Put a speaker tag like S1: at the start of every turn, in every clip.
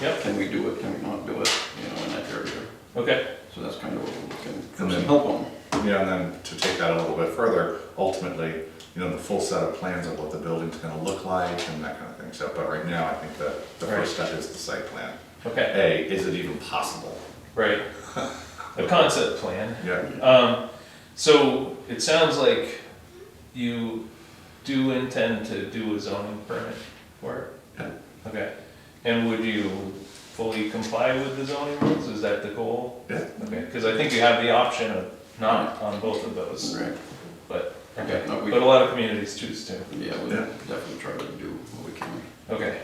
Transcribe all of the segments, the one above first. S1: Yep,
S2: Can we do it, can we not do it, you know, in that area?
S1: okay,
S2: So that's kind of what we're looking for, some
S3: And then-
S2: help on.
S3: Yeah, and then to take that a little bit further, ultimately, you know, the full set of plans of what the building's gonna look like and that kind of thing, so, but right now, I think that the first step is the site plan.
S1: okay,
S3: A, is it even possible?
S1: right. A concept plan.
S3: Yeah,
S1: Um, so it sounds like you do intend to do a zoning permit for
S3: Yeah.
S1: it? Okay, and would you fully comply with the zoning rules, is that the goal?
S3: yeah,
S1: Okay, cause I think you have the option of not on both of those,
S2: Right,
S1: but, okay,
S2: Okay, no, we-
S1: but a lot of communities choose to,
S2: yeah, we'll
S3: Yeah.
S2: definitely try to do what we can.
S1: okay.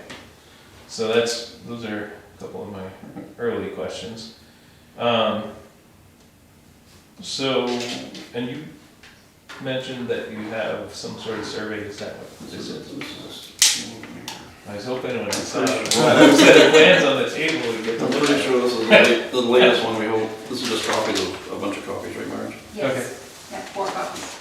S1: So that's, those are a couple of my early questions. Um, so, and you mentioned that you have some sort of survey, is that what
S2: This
S1: this is?
S2: is, this is.
S1: I was hoping when I saw the set of plans on the table, we'd get to
S2: I'm
S1: look
S2: pretty
S1: at it.
S2: sure this is the la- the latest one we hold, this is just copies of, a bunch of copies, right, Marge?
S4: Yes, yeah, four copies.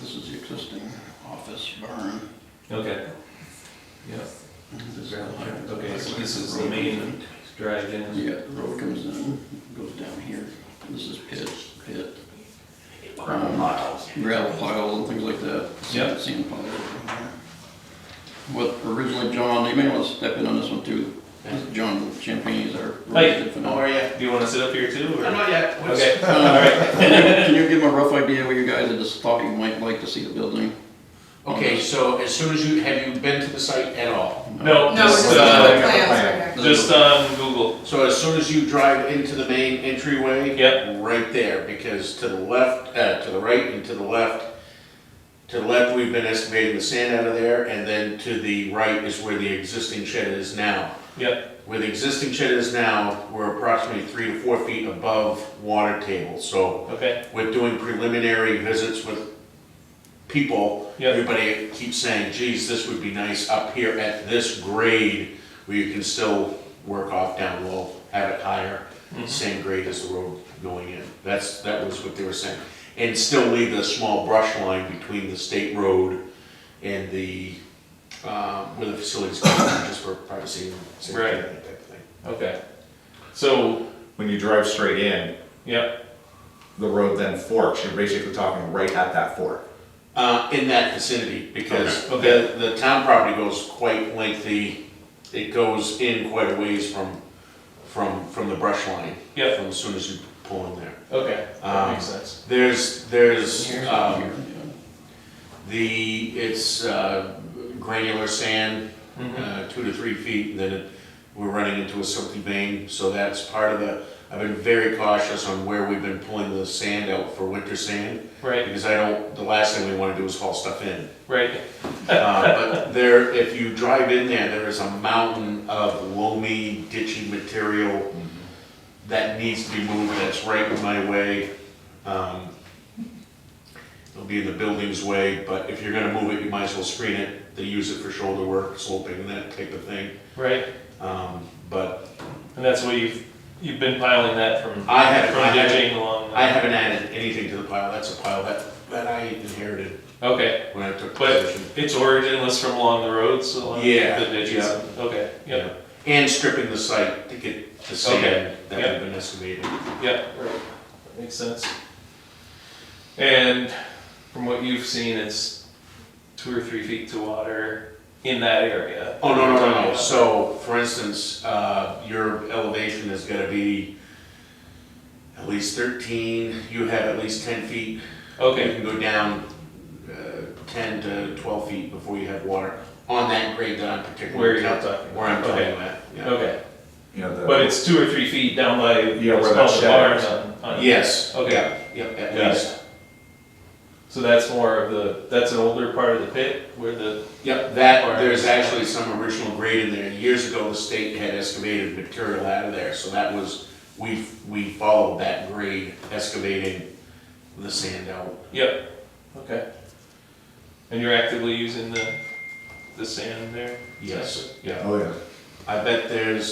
S2: This is the existing office barn.
S1: Okay. Yeah,
S2: This is the-
S1: okay, so this is the main drive-in.
S2: Yeah, the road comes in, goes down here, this is pit, pit. Gravel piles. Gravel piles and things like that.
S1: Yeah.
S2: Sand- Sand piles. What originally John, you may want to step in on this one too, John Champagne's our.
S1: Hey.
S5: How are you?
S1: Do you wanna sit up here too, or?
S5: I'm not yet.
S1: Okay,
S2: Um,
S1: alright,
S2: Can you- can you give them a rough idea what you guys had just thought you might like to see the building?
S5: Okay, so as soon as you, have you been to the site at all?
S1: no,
S4: No,
S1: just,
S4: just
S1: uh,
S4: the plans right here.
S1: just on Google,
S5: So as soon as you drive into the main entryway?
S1: Yep.
S5: Right there, because to the left, uh, to the right and to the left, to the left, we've been excavating the sand out of there, and then to the right is where the existing shed is now.
S1: yep,
S5: Where the existing shed is now, we're approximately three to four feet above water table, so
S1: okay,
S5: with doing preliminary visits with people,
S1: Yep.
S5: everybody keeps saying, geez, this would be nice up here at this grade, where you can still work off down low, have it higher, same grade as the road going in. That's, that was what they were saying. And still leave the small brush line between the state road and the, uh, where the facilities, go, just for privacy and safety and that type of thing.
S1: okay. So,
S3: when you drive straight in,
S1: yep,
S3: the road then forks, you're basically talking right at that fork.
S5: Uh, in that vicinity, because
S1: Okay. Okay.
S5: the, the town property goes quite lengthy, it goes in quite a ways from, from, from the brush line.
S1: Yep.
S5: From as soon as you pull in there.
S1: okay, that
S5: Um,
S1: makes sense,
S5: There's, there's,
S2: Here,
S5: um,
S2: yeah.
S5: the, it's, uh, granular sand,
S1: Mm-hmm.
S5: uh, two to three feet, and then it- we're running into a silty vein, so that's part of the, I've been very cautious on where we've been pulling the sand out for winter sand,
S1: right,
S5: because I don't, the last thing we wanna do is haul stuff in.
S1: right,
S5: Uh, But there, if you drive in there, there is a mountain of loamy, ditchy material
S1: Mm-hmm.
S5: that needs to be moved, that's right in my way. Um, It'll be in the building's way, but if you're gonna move it, you might as well screen it. They use it for shoulder work, sloping, that type of thing.
S1: right,
S5: Um, But
S1: and that's what you've, you've been piling that from,
S5: I haven't- I
S1: from
S5: haven't-
S1: ditching along.
S5: I haven't added anything to the pile, that's a pile that, that I inherited
S1: Okay,
S5: when I took
S1: but
S5: possession.
S1: its origin was from along the roads, along the
S5: Yeah,
S1: ditches,
S5: yeah.
S1: okay, yeah,
S5: And stripping the site to get
S1: Okay,
S5: the sand that
S1: yeah.
S5: had been excavated.
S1: yeah, right, that makes sense. And from what you've seen, it's two or three feet to water in that area.
S5: Oh, no, no, no, no, so, for instance, uh, your elevation is gonna be at least thirteen, you have at least ten feet. You
S1: Okay,
S5: can go down, uh, ten to twelve feet before you have water, on that grade that I'm particularly.
S1: Where you're
S5: tell-
S1: talking.
S5: Where I'm talking
S1: Okay.
S5: about, yeah.
S1: okay,
S3: You know, the.
S1: but it's two or three feet down by,
S3: Yeah, where
S1: it's
S3: that
S1: called the
S3: shed
S1: barn
S3: is.
S1: on, on.
S5: Yes.
S1: Okay.
S5: Yep, Yep, at
S1: Got
S5: least,
S1: So that's more of the, that's an older part of the pit where the,
S5: yep, that,
S1: Alright.
S5: there's actually some original grade in there, years ago, the state had excavated material out of there, so that was, we, we followed that grade, excavating the sand out.
S1: yep, okay. And you're actively using the, the sand there?
S5: Yes, yeah.
S3: Oh, yeah.
S5: I bet there's